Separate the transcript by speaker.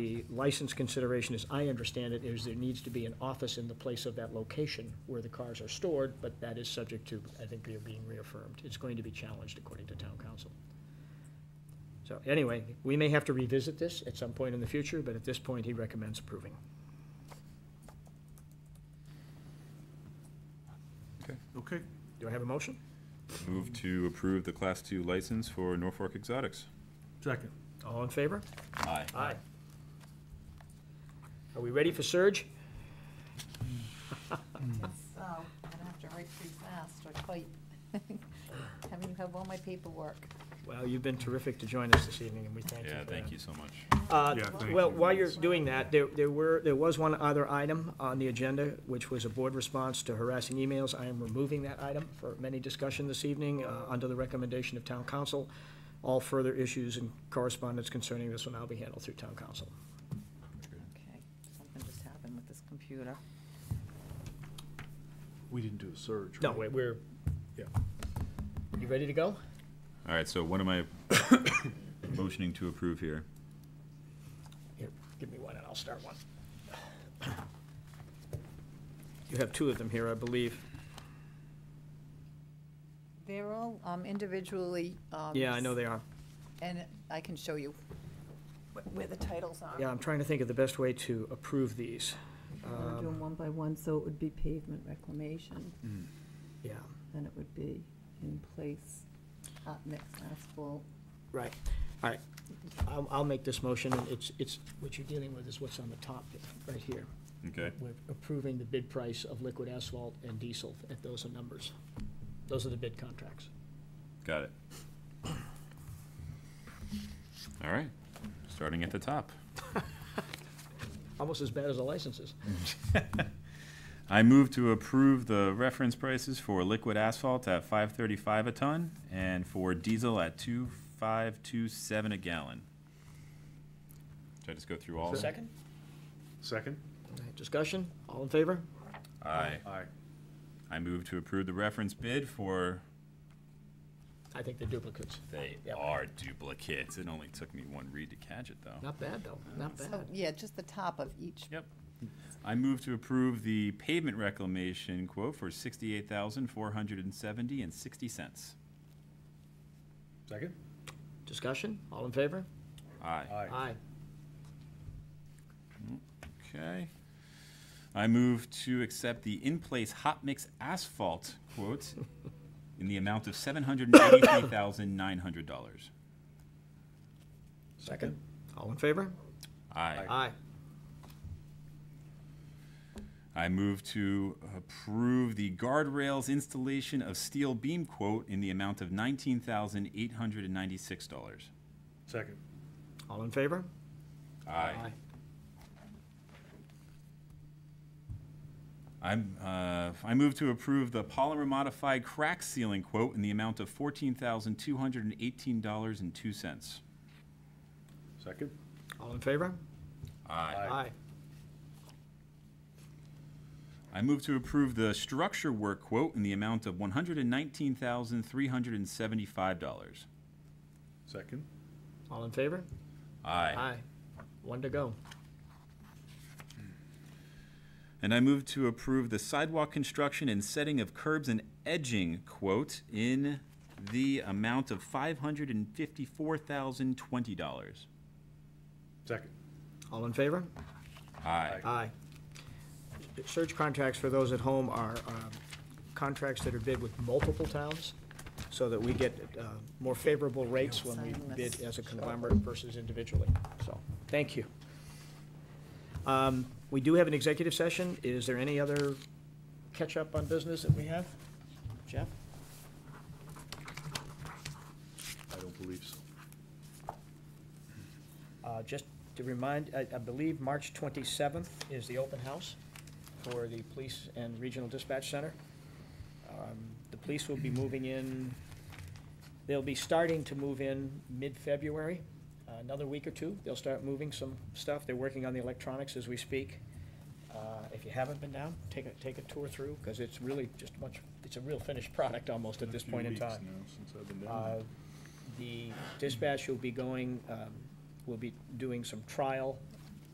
Speaker 1: The license consideration, as I understand it, is there needs to be an office in the place of that location where the cars are stored, but that is subject to, I think, they're being reaffirmed. It's going to be challenged according to town council. So anyway, we may have to revisit this at some point in the future, but at this point, he recommends approving.
Speaker 2: Okay,
Speaker 1: Do I have a motion?
Speaker 3: Move to approve the Class 2 license for Norfolk Exotics.
Speaker 2: second.
Speaker 1: All in favor?
Speaker 3: Aye.
Speaker 1: Aye. Are we ready for surge?
Speaker 4: So, I don't have to write too fast or type. Having you have all my paperwork.
Speaker 1: Well, you've been terrific to join us this evening, and we thank you for
Speaker 3: Yeah,
Speaker 1: that.
Speaker 3: thank you so much.
Speaker 1: Uh,
Speaker 2: Yeah, thank
Speaker 1: Well,
Speaker 2: you.
Speaker 1: while you're doing that, there, there were, there was one other item on the agenda, which was a board response to harassing emails. I am removing that item for many discussion this evening, uh, under the recommendation of town council. All further issues and correspondence concerning this will now be handled through town council.
Speaker 4: Okay, something just happened with this computer.
Speaker 2: We didn't do a surge.
Speaker 1: No,
Speaker 2: right?
Speaker 1: wait, we're,
Speaker 2: Yeah.
Speaker 1: you ready to go?
Speaker 3: All right, so what am I motioning to approve here?
Speaker 1: Here, give me one and I'll start one. You have two of them here, I believe.
Speaker 4: They're all um, individually. um,
Speaker 1: Yeah, I know they are.
Speaker 4: And I can show you wh- where the titles are.
Speaker 1: Yeah, I'm trying to think of the best way to approve these.
Speaker 5: We're
Speaker 1: Um,
Speaker 5: doing one by one, so it would be pavement reclamation,
Speaker 1: Yeah,
Speaker 5: then it would be in place,
Speaker 4: Hot mix asphalt.
Speaker 1: right. All right. I'll, I'll make this motion. It's, it's, what you're dealing with is what's on the top right here.
Speaker 3: Okay,
Speaker 1: We're approving the bid price of liquid asphalt and diesel at those numbers. Those are the bid contracts.
Speaker 3: got it. All right, starting at the top.
Speaker 1: Almost as bad as the licenses.
Speaker 3: I move to approve the reference prices for liquid asphalt at 535 a ton and for diesel at 2527 a gallon. Should I just go through all? of them?
Speaker 1: Second?
Speaker 2: Second?
Speaker 1: All right, Discussion? All in favor?
Speaker 3: Aye.
Speaker 2: Aye.
Speaker 3: I move to approve the reference bid for
Speaker 1: I think they're duplicates.
Speaker 3: They
Speaker 1: Yep.
Speaker 3: are duplicates. It only took me one read to catch it, though.
Speaker 1: Not bad, though. Not
Speaker 4: So,
Speaker 1: bad.
Speaker 4: Yeah, just the top of each.
Speaker 3: Yep. I move to approve the pavement reclamation quote for sixty-eight thousand four hundred and seventy and sixty cents.
Speaker 2: Second?
Speaker 1: Discussion? All in favor?
Speaker 3: Aye.
Speaker 1: Aye.
Speaker 3: Okay. I move to accept the in-place hot mix asphalt quote in the amount of seven hundred and eighty-three thousand nine hundred dollars.
Speaker 1: Second? All in favor?
Speaker 3: Aye.
Speaker 1: Aye.
Speaker 3: I move to approve the guardrails installation of steel beam quote in the amount of nineteen thousand eight hundred and ninety-six dollars.
Speaker 2: Second.
Speaker 1: All in favor?
Speaker 3: Aye. I'm, uh, I move to approve the polymer modified crack sealing quote in the amount of fourteen thousand two hundred and eighteen dollars and two cents.
Speaker 2: Second?
Speaker 1: All in favor?
Speaker 3: Aye.
Speaker 1: Aye.
Speaker 3: I move to approve the structure work quote in the amount of one hundred and nineteen thousand three hundred and seventy-five dollars.
Speaker 2: Second?
Speaker 1: All in favor?
Speaker 3: Aye.
Speaker 1: Aye. One to go.
Speaker 3: And I move to approve the sidewalk construction and setting of curbs and edging quote in the amount of five hundred and fifty-four thousand twenty dollars.
Speaker 2: Second.
Speaker 1: All in favor?
Speaker 3: Aye.
Speaker 1: Aye. Search contracts for those at home are um, contracts that are bid with multiple towns, so that we get uh, more favorable rates when we
Speaker 4: Sign this.
Speaker 1: bid as a conglomerate versus individually. So, thank you. Um, We do have an executive session. Is there any other catch-up on business that we have? Jeff?
Speaker 2: I don't believe so.
Speaker 1: Uh, Just to remind, I I believe March 27th is the open house for the Police and Regional Dispatch Center. Um, The police will be moving in, they'll be starting to move in mid-February, Uh, another week or two. They'll start moving some stuff. They're working on the electronics as we speak. Uh, If you haven't been down, take a, take a tour through, because it's really just much, it's a real finished product almost at this point in time.
Speaker 2: Since I've been
Speaker 1: Uh,
Speaker 2: down.
Speaker 1: The dispatch will be going, um, will be doing some trial